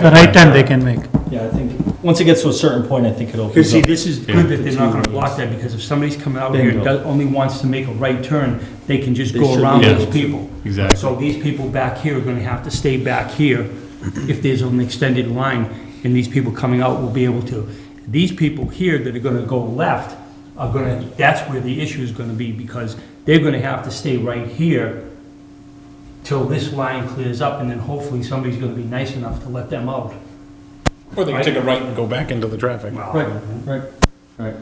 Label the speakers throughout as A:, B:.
A: The right turn they can make.
B: Yeah, I think, once it gets to a certain point, I think it
C: Because
B: opens
C: see,
B: up.
C: this is good that they're not gonna block that, because if somebody's coming out here and
B: Bingo.
C: does- only wants to make a right turn, they can just
B: They
C: go
B: should be
C: around
D: able
C: those
B: to.
C: people.
D: Exactly.
C: So these people back here are gonna have to stay back here if there's an extended line, and these people coming out will be able to. These people here that are gonna go left are gonna, that's where the issue is gonna be, because they're gonna have to stay right here till this line clears up, and then hopefully somebody's gonna be nice enough to let them out.
E: Or they can take a right and go back into the traffic.
B: Right, right, right.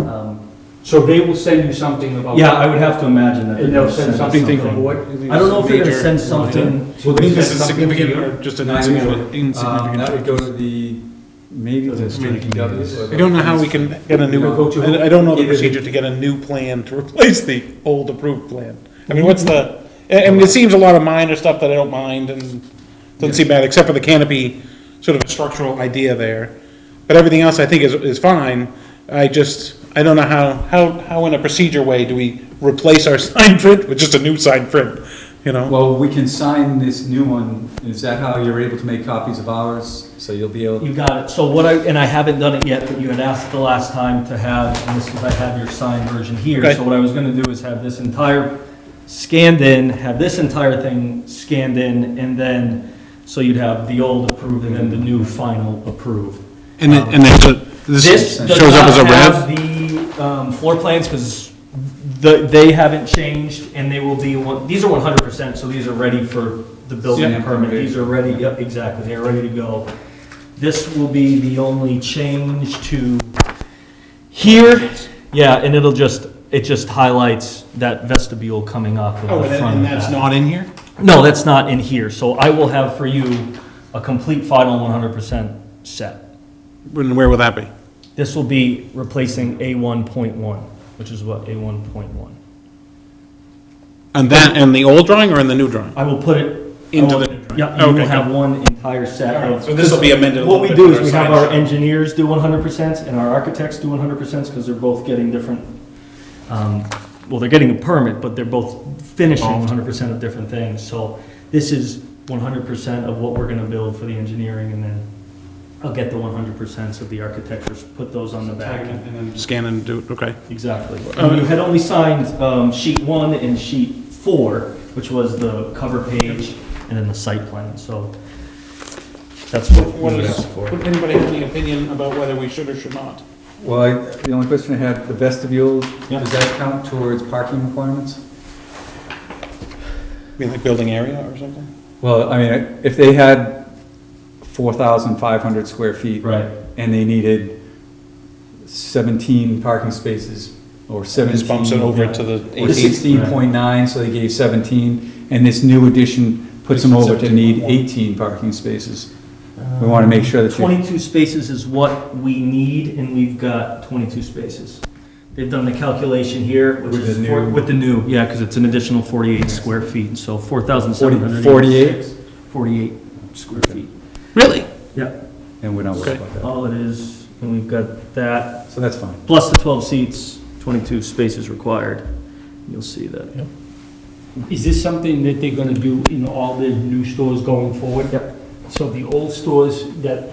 B: Um,
C: So they will send you something about.
B: Yeah, I would have to imagine that.
C: And they'll send something to the board?
B: I don't know if they're gonna send something. Uh,
F: Well,
E: I
F: they
E: think this
F: said
E: is
F: something
E: significant
F: here.
E: or just an
F: Nine
E: insignificant-
F: Um, That would
E: insignificant.
F: go to the, maybe the
D: Doesn't strike me as-
F: DPW.
E: I don't know how we can get a new, I I don't know the procedure to get a new plan to replace the old approved plan. I mean, what's the, I I mean, it seems a lot of minor stuff that I don't mind and doesn't seem bad, except for the canopy, sort of structural idea there. But everything else I think is, is fine. I just, I don't know how, how, how in a procedure way do we replace our sign print with just a new sign print, you know?
F: Well, we can sign this new one. Is that how you're able to make copies of ours? So you'll be able,
B: You got it. So what I, and I haven't done it yet, but you had asked the last time to have, and this is, I have your signed version here.
E: Okay.
B: So what I was gonna do is have this entire scanned in, have this entire thing scanned in, and then, so you'd have the old approved and then the new final approved.
D: And it, and it's a-
B: This
D: this
B: does
D: shows up as a
B: not have
D: rev?
B: the um, floor plans, because the, they haven't changed, and they will be, one- these are one hundred percent, so these are ready for the building
F: Yeah.
B: permit. These are ready, yep, exactly, they're ready to go. This will be the only change to here, yeah, and it'll just, it just highlights that vestibule coming off
D: Oh,
E: Oh,
B: of the front of that.
D: not in here?
B: No, that's not in here, so I will have for you a complete final one hundred percent set.
D: And where will that be?
B: This will be replacing A1.1, which is what, A1.1.
D: And that, and the old drawing or in the new drawing?
B: I will put it.
D: Into
B: I will-
D: the new drawing.
B: Yeah, you will
D: Oh, Okay,
B: have one entire set of.
D: So this will be amended a
B: What
D: little
B: we
D: bit.
B: do
D: for
B: is we
D: our
B: have our
D: signage.
B: engineers do 100% and our architects do 100% because they're both getting different, um, well, they're getting a permit, but they're both finishing
D: Oh.
B: 100% of different things. So this is 100% of what we're going to build for the engineering and then I'll get the 100% of the architectures, put those on the back. and-
D: Scan and do, it. okay.
B: Exactly.
D: Uh,
B: And you had only signed um, sheet one and sheet four, which was the cover page and then the site plan, so that's what
E: What
B: we
E: is,
B: asked for.
E: would anybody have any opinion about whether we should or should not?
F: well, I- the only question I had, the vestibule,
B: Yeah.
F: does that count towards parking requirements?
E: Be like building area or something?
F: Well, I mean, if they had four thousand five hundred square feet.
B: Right.
F: And they needed seventeen parking spaces or seventeen.
E: Just bumps it over to the
F: Or
E: 18th.
F: sixteen point nine, so they gave seventeen, and this new addition puts them over to need eighteen parking spaces. We wanna make sure that you,
B: Twenty-two spaces is what we need, and we've got twenty-two spaces. They've done the calculation here, which
F: With
B: is,
F: the
B: for-
F: new-
B: with the new, yeah, because it's an additional forty-eight square feet, so four thousand seven
F: Forty-
B: hundred.
F: forty-eight,
B: Forty-eight square feet.
D: Really?
B: Yeah,
F: and we're not worried about that,
B: all it is, and we've got that,
F: so that's fine.
B: plus the 12 seats, 22 spaces required. You'll see that.
C: Is this something that they're gonna do in all the new stores going forward?
B: Yep.
C: So the old stores that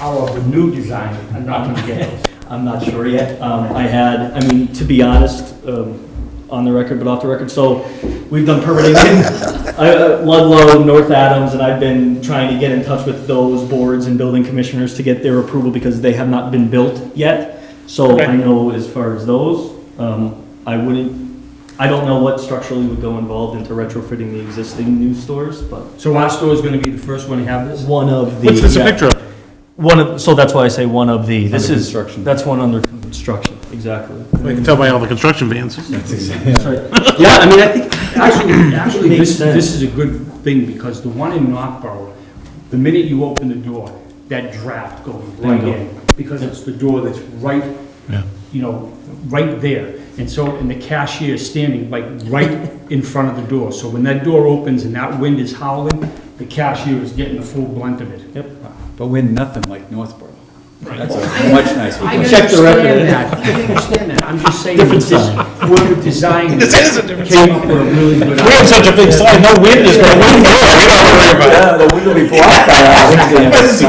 C: are of the new design are not gonna get those?
B: I'm not sure yet. Um, I had, I mean, to be honest, um, on the record, but off the record, so we've done permitting in I- uh, Ludlow, North Adams, and I've been trying to get in touch with those boards and building commissioners to get their approval because they have not been built yet. So I know as far as those, um, I wouldn't, I don't know what structurally would go involved into retrofitting the existing new stores, but
C: So our store is gonna be the first one to have this?
B: One of the.
D: What's this a
B: yeah.
D: picture of?
B: One of, so that's why I say one of the, this
F: Under
B: is,
F: construction.
B: that's one under construction, exactly.
D: I can tell by all the construction vans.
B: Sorry. Yeah, I mean, I think,
C: Actually, actually,
B: Makes
C: this,
B: sense.
C: this is a good thing, because the one in Northborough, the minute you open the door, that draft goes right
B: Bingo.
C: in, because it's the door that's right,
D: Yeah.
C: you know, right there. And so, and the cashier is standing like right in front of the door, so when that door opens and that wind is howling, the cashier is getting the full blunt of it.
F: But we're nothing like Northborough. That's a much nicer.
C: I
F: place.
B: Check the record.
C: understand that, I understand that, I'm just saying,
B: Different
C: this, word of design
E: This is a different
C: came up with a really good
E: We have
C: idea.
E: such a big slide, no wind is gonna, wind blow, we don't have to worry about it.
F: Yeah, the wind will be blocked by our windscreen.